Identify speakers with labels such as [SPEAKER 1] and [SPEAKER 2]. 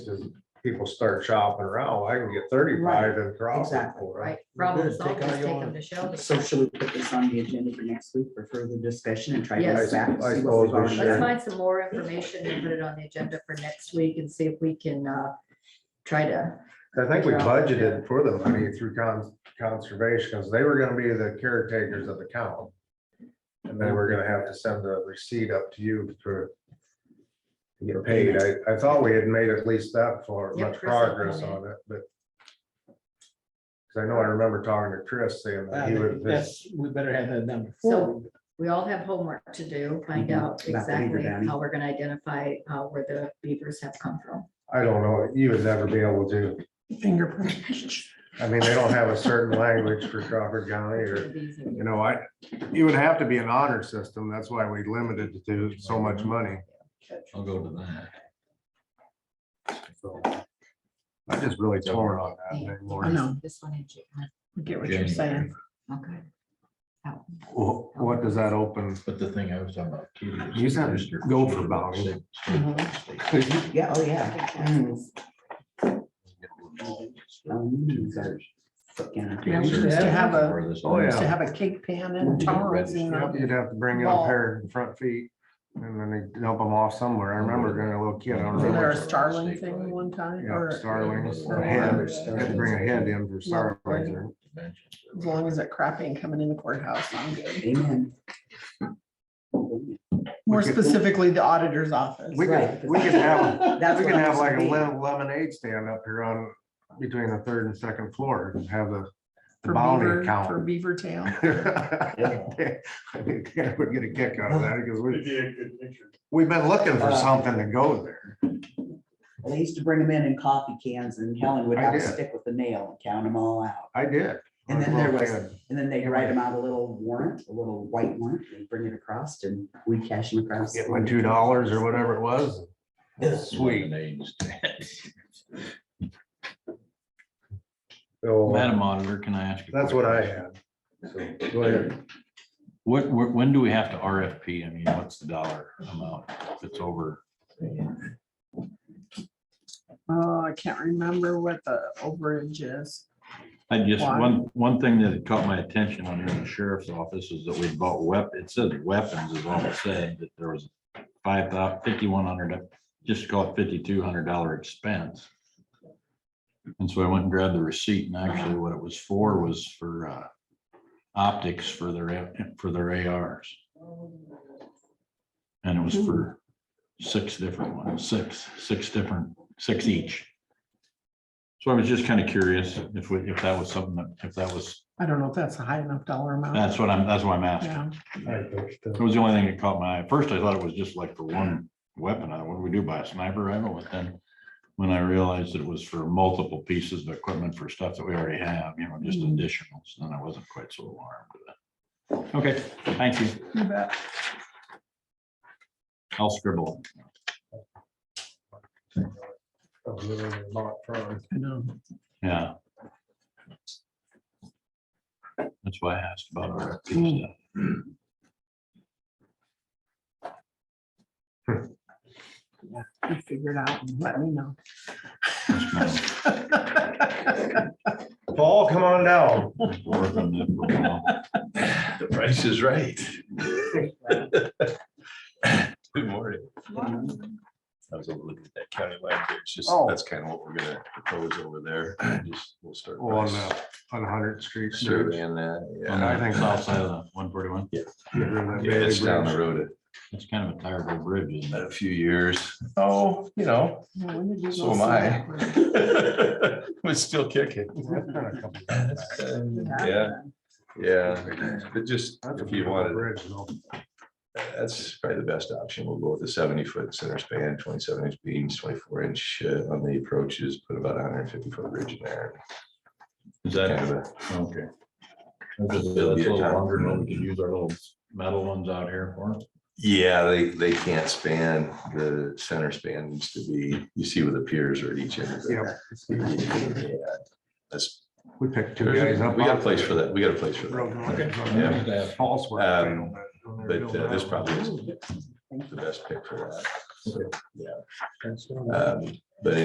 [SPEAKER 1] is people start shopping around, I can get thirty-five and cross it
[SPEAKER 2] Exactly,
[SPEAKER 1] for
[SPEAKER 2] right?
[SPEAKER 1] it.
[SPEAKER 2] Problem
[SPEAKER 3] Good,
[SPEAKER 2] solved,
[SPEAKER 3] take out
[SPEAKER 2] just take
[SPEAKER 3] your-
[SPEAKER 2] them to shelves.
[SPEAKER 3] So should we put this on the agenda for next week for further discussion and try to
[SPEAKER 2] Yes.
[SPEAKER 3] get back?
[SPEAKER 1] I
[SPEAKER 3] to see
[SPEAKER 1] suppose
[SPEAKER 3] what
[SPEAKER 1] we
[SPEAKER 3] we've already
[SPEAKER 1] should.
[SPEAKER 2] Let's
[SPEAKER 3] done?
[SPEAKER 2] find some more information and put it on the agenda for next week and see if we can, uh, try to,
[SPEAKER 1] I think we
[SPEAKER 2] Yeah.
[SPEAKER 1] budgeted for the money through cons- conservation, because they were gonna be the caretakers of the cow. And then we're gonna have to send a receipt up to you for. to Get paid, I, I thought we had made at least that for
[SPEAKER 2] Yeah,
[SPEAKER 1] much
[SPEAKER 2] Chris had
[SPEAKER 1] progress
[SPEAKER 2] done
[SPEAKER 1] on it, but. Because I know I remember talking to Chris saying that he
[SPEAKER 4] Uh,
[SPEAKER 1] would, this-
[SPEAKER 4] That's, we better have that number.
[SPEAKER 2] so we all have homework to do, find
[SPEAKER 3] Mhm.
[SPEAKER 2] out
[SPEAKER 3] About the beaver
[SPEAKER 2] exactly
[SPEAKER 3] dam.
[SPEAKER 2] how we're gonna identify, uh, where the beavers have come from.
[SPEAKER 1] I don't know, you would never be able to,
[SPEAKER 2] Fingerprint.
[SPEAKER 1] I mean, they don't have a certain language for Crawford County or. You know, I, you would have to be an honor system. That's why we limited it to so much money.
[SPEAKER 5] I'll go to that.
[SPEAKER 1] So I just really torn on that anymore.
[SPEAKER 3] know.
[SPEAKER 2] This one in June.
[SPEAKER 6] Get what you're saying.
[SPEAKER 2] Okay. Out.
[SPEAKER 1] Wh- What does that open?
[SPEAKER 5] But the thing I was talking about. too is-
[SPEAKER 1] You said go for bounty.
[SPEAKER 3] Yeah, oh, yeah. Mm. Mm, so, yeah.
[SPEAKER 6] Yeah, we used to have a,
[SPEAKER 1] Oh,
[SPEAKER 6] we used to
[SPEAKER 1] yeah.
[SPEAKER 6] have a cake pan in Charles, you know.
[SPEAKER 1] Yep, You'd have to bring in a pair of front feet and then they dump them off somewhere. I remember being a little kid. I don't
[SPEAKER 6] Wasn't there
[SPEAKER 1] remember.
[SPEAKER 6] a Starling thing one time
[SPEAKER 1] Yeah,
[SPEAKER 6] or?
[SPEAKER 1] starlings,
[SPEAKER 6] or-
[SPEAKER 1] a hen.
[SPEAKER 6] Starling.
[SPEAKER 1] Had to bring a head in for starlings.
[SPEAKER 6] As long as that crap ain't coming in the courthouse, I'm good.
[SPEAKER 3] Amen.
[SPEAKER 6] More
[SPEAKER 1] could-
[SPEAKER 6] specifically, the auditor's office.
[SPEAKER 1] We
[SPEAKER 3] Right.
[SPEAKER 1] could, we could have,
[SPEAKER 3] That's
[SPEAKER 1] we
[SPEAKER 3] what
[SPEAKER 1] could
[SPEAKER 3] I'm
[SPEAKER 1] have like a
[SPEAKER 3] saying.
[SPEAKER 1] lem- lemonade stand up here on, between the third and second floor and have the
[SPEAKER 6] For
[SPEAKER 1] bounty
[SPEAKER 6] Beaver, for
[SPEAKER 1] count.
[SPEAKER 6] Beaver Town.
[SPEAKER 1] I think Dad would get a kick out of that because
[SPEAKER 7] It'd
[SPEAKER 1] we,
[SPEAKER 7] be a good picture.
[SPEAKER 1] we've been looking for
[SPEAKER 3] Uh,
[SPEAKER 1] something to go there.
[SPEAKER 3] They used to bring them in in coffee cans and Helen would
[SPEAKER 1] I
[SPEAKER 3] have to
[SPEAKER 1] did.
[SPEAKER 3] stick with the nail and count them all out.
[SPEAKER 1] I did.
[SPEAKER 3] And then there was,
[SPEAKER 1] Well,
[SPEAKER 3] and then they'd write them out a little warrant, a little white warrant, and bring it across and we cash them across.
[SPEAKER 1] Get my two dollars or whatever it was. Sweet. So
[SPEAKER 5] Madam Auditor, can I ask? a
[SPEAKER 1] Oh, that's what I
[SPEAKER 5] question?
[SPEAKER 1] had. So Go ahead.
[SPEAKER 5] What, wh- when do we have to RFP? I mean, what's the dollar amount if it's over?
[SPEAKER 6] Oh, I can't remember what the overage is.
[SPEAKER 5] I just,
[SPEAKER 6] Why?
[SPEAKER 5] one, one thing that caught my attention on here in the sheriff's office is that we bought wep, it says weapons is all it said, that there was five thou- 5,100 just call it fifty-two hundred dollar expense. And so I went and grabbed the receipt and actually what it was for was for uh, optics for their, for their ARs. And it was for six different ones, six, six different, six each. So I was just kind of curious if we, if that was something that, if that was,
[SPEAKER 6] I don't know if that's a high enough dollar amount.
[SPEAKER 5] that's what I'm, that's why I'm asking.
[SPEAKER 6] Yeah,
[SPEAKER 5] It was the only thing that caught my eye. At First, I thought it was just like for one weapon. I, thought, what do we do buy a sniper rifle? But then when I realized it was for multiple pieces of equipment for stuff that we already have, you know, just
[SPEAKER 6] Mhm.
[SPEAKER 5] additionals, then I wasn't quite so alarmed with that. Okay, thank you.
[SPEAKER 6] you bet.
[SPEAKER 5] I'll scribble.
[SPEAKER 1] Oh,
[SPEAKER 6] I know.
[SPEAKER 5] Yeah. That's why I asked about RFP stuff.
[SPEAKER 6] You figure it out and let me know.
[SPEAKER 5] That's my-
[SPEAKER 1] Paul, come on down.
[SPEAKER 5] work on that for a while.
[SPEAKER 8] The price is right. Good morning. I was able to look at that county line, but it's just,
[SPEAKER 1] Oh.
[SPEAKER 8] that's kind of what we're gonna propose over there. Just, we'll start.
[SPEAKER 1] On, uh, on Hundredth Street. Bridge.
[SPEAKER 8] Surveying that,
[SPEAKER 5] On
[SPEAKER 8] yeah.
[SPEAKER 1] I
[SPEAKER 5] the
[SPEAKER 1] think-
[SPEAKER 5] south side of the one forty-one,
[SPEAKER 1] Get rid of that
[SPEAKER 8] Yeah, It's down
[SPEAKER 1] Bailey
[SPEAKER 8] the
[SPEAKER 1] Bridge.
[SPEAKER 8] road
[SPEAKER 5] it's kind of a terrible bridge, isn't
[SPEAKER 8] a
[SPEAKER 5] it?
[SPEAKER 8] a few years. Oh, you know, so am I. But still kicking.
[SPEAKER 1] That's been a couple of years back.
[SPEAKER 8] Yeah, yeah, but just
[SPEAKER 1] That's a
[SPEAKER 8] if you
[SPEAKER 1] beautiful
[SPEAKER 8] wanted
[SPEAKER 1] bridge, though.
[SPEAKER 8] That's probably the best option. We'll go with the seventy foot center span, twenty seven inch beams, twenty four inch uh, on the approaches, put about a hundred and fifty foot bridge in there.
[SPEAKER 5] Is
[SPEAKER 8] Kind
[SPEAKER 5] that,
[SPEAKER 8] of a-
[SPEAKER 5] okay. That's a little longer, but we could use our little metal ones out here for. it.
[SPEAKER 8] Yeah, they, they can't span, the center span needs to be, you see where the piers are at each end. of it.
[SPEAKER 1] Yep.
[SPEAKER 8] Yeah, That's,
[SPEAKER 1] We picked
[SPEAKER 8] we
[SPEAKER 1] two guys up.
[SPEAKER 8] got a
[SPEAKER 1] off
[SPEAKER 8] place
[SPEAKER 1] the
[SPEAKER 8] for that. We got a place for
[SPEAKER 1] road.
[SPEAKER 8] that.
[SPEAKER 5] Yeah.
[SPEAKER 1] That's False. work,
[SPEAKER 8] Um,
[SPEAKER 1] you know, but when they're
[SPEAKER 8] But
[SPEAKER 1] building
[SPEAKER 8] uh, this
[SPEAKER 1] that,
[SPEAKER 8] probably is the best pick for that. So, Yeah. Um,